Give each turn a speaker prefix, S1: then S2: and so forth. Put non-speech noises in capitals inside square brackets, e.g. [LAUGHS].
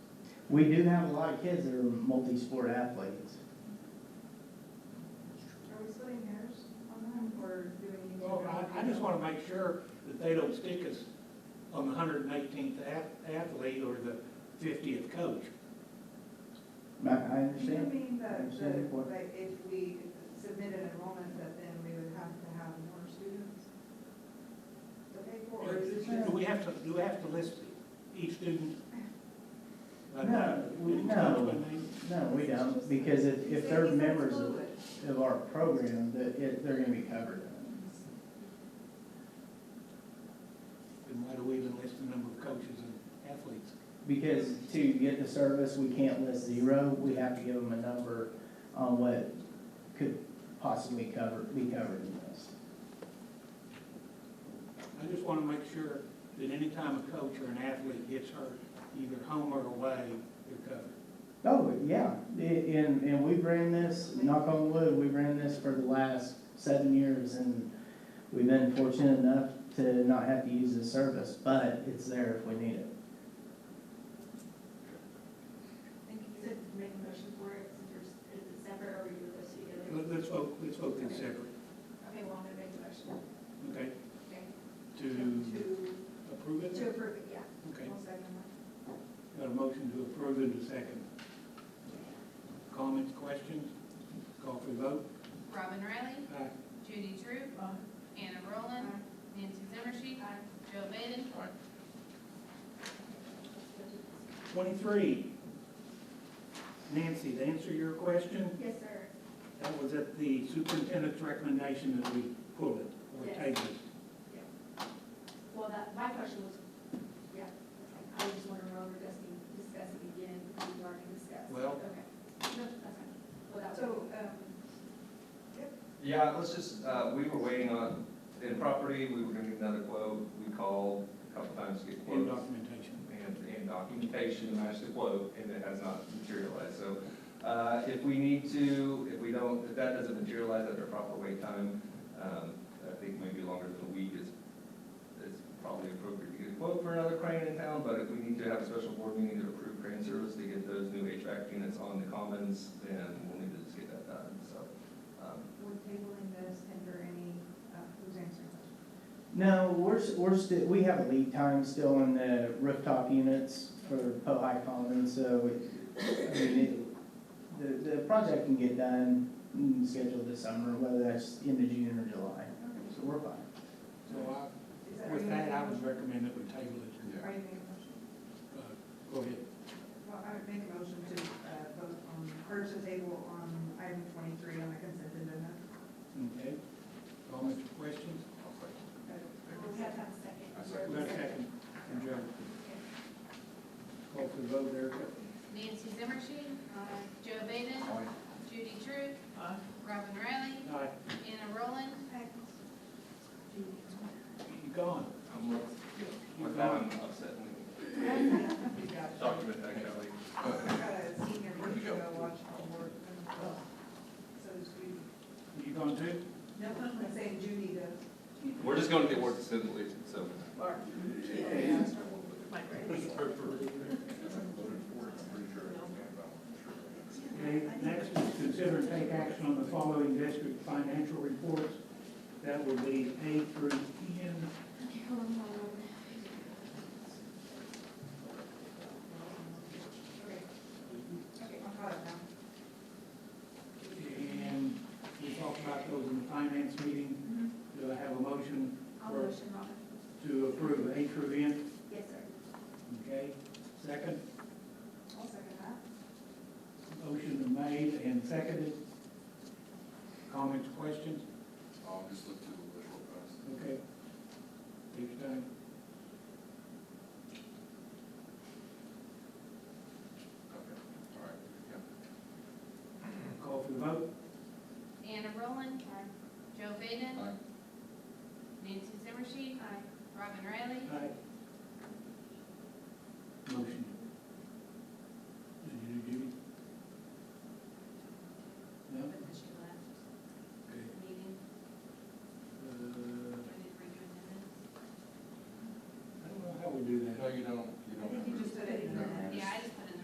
S1: We do have a lot of kids that are multi-sport athletes.
S2: Are we splitting hairs on them, or do we need to?
S3: Well, Oh, I, I just wanna make sure that they don't stick us on the hundred and eighteenth athlete or the fiftieth coach.
S1: I, I
S2: Do you
S1: understand.
S2: mean that,
S1: Understand your
S2: that,
S1: point.
S2: like, if we submitted enrollment, that then we would have to have more students? To pay for, or is it just?
S3: Do we have to, do we have to list each student? Uh,
S1: No, we-
S3: each coach
S1: no.
S3: by name?
S1: No, we don't, because if, if they're
S2: It's- it's
S1: members of,
S2: fluid.
S1: of our program, that it, they're gonna be covered.
S3: Then why do we even list the number of coaches and athletes?
S1: Because to get the service, we can't list zero, we have to give them a number on what could possibly cover, be covered in this.
S3: I just wanna make sure that any time a coach or an athlete gets hurt, either home or away, they're covered.
S1: Oh, yeah, I- and, and we've ran this, knock on wood, we've ran this for the last seven years, and we've been fortunate enough to not have to use this service, but it's there if we need it.
S4: Thank you. So make a motion for it, since there's, is it separate or are you listed together?
S3: Let- Let's vote, let's vote them separate,
S4: Okay, well, I'm gonna make a motion.
S3: okay?
S4: Okay.
S3: To approve
S4: To, to
S3: it?
S4: approve it, yeah.
S3: Okay.
S4: One second.
S3: Got a motion to approve in a second. Comments, questions? Call for the vote.
S5: Robin Riley,
S3: Aye.
S5: Judy Drew,
S4: Aye.
S5: Anna Roland, Nancy Zimmershed, Jill Vaden,
S3: Twenty-three. Nancy, to answer your question,
S4: Yes, sir.
S3: that was at the superintendent's recommendation that we pull it or
S4: Yes.
S3: table it.
S4: Well, that, my question was, yeah, I was just wondering whether we're discussing, discussing again, because we already discussed.
S3: Well-
S4: Okay. No, that's fine. Well, that was,
S2: So, um,
S6: Yeah, let's just, uh, we were waiting on, in property, we were gonna get another quote, we called a couple times to get
S3: in
S6: quotes.
S3: documentation.
S6: And, and documentation to match the quote, and it has not materialized, so, uh, if we need to, if we don't, if that doesn't materialize at the proper wait time, um, I think maybe longer than a week is, is probably appropriate to get a quote for another crane in town, but if we need to have a special board meeting to approve crane service to get those new HVAC units on the commons, then we'll need to just get that done, so, um,
S2: we're tabling this under any, uh, who's answering this?
S1: No, we're, s- we're still, we have a lead time still on the rooftop units for Pohai Commons, so it, I mean, it, the, the project can get done, mm, scheduled this summer, whether that's end of June or July, so we're fine.
S2: Is
S3: So I,
S2: that-
S3: with that,
S2: are
S3: I
S2: you making a motion?
S3: would recommend that we table it.
S2: Are you making a motion?
S3: Uh, Go ahead.
S2: Well, I would make a motion to, uh, vote on, or to table on item twenty-three on the consent agenda.
S3: Okay. Comments, questions?
S4: we have to have a second.
S6: I second.
S3: We got a second from Joe. Call for the vote, Erica.
S5: Nancy Zimmershed,
S4: Aye.
S5: Jill Vaden, Judy Drew, Robin Riley,
S3: Aye.
S5: Anna Roland,
S6: [LAUGHS]
S3: You gone?
S6: I'm,
S3: You're
S6: with that,
S3: gone.
S6: I'm upset.
S2: You got it.
S6: Document that, Kelly.
S2: I've got a senior
S6: Where'd you
S2: to
S6: go?
S2: go watch the board. So it's Judy.
S3: You gone too?
S2: No, I'm saying Judy does.
S6: We're just going to the word assembly, so.
S3: Okay, next is consider and take action on the following district financial reports. That will be A through N.
S2: Okay, okay, I'm caught up now.
S3: And we talked about those in the finance meeting. Do I have a motion
S4: Mm-hmm. I'll
S3: Or-
S4: motion, Robin.
S3: to approve A through N?
S4: Yes, sir.
S3: Okay, second,
S2: I'll second that.
S3: motion made and seconded. Comments, questions?
S7: I'll just look through the list real fast.
S3: Okay. Each time.
S7: Okay, all right, yeah.
S3: Call for the vote.
S5: Anna Roland, Jill Vaden,
S7: Aye.
S5: Nancy Zimmershed, Robin Riley,
S3: Aye. uh,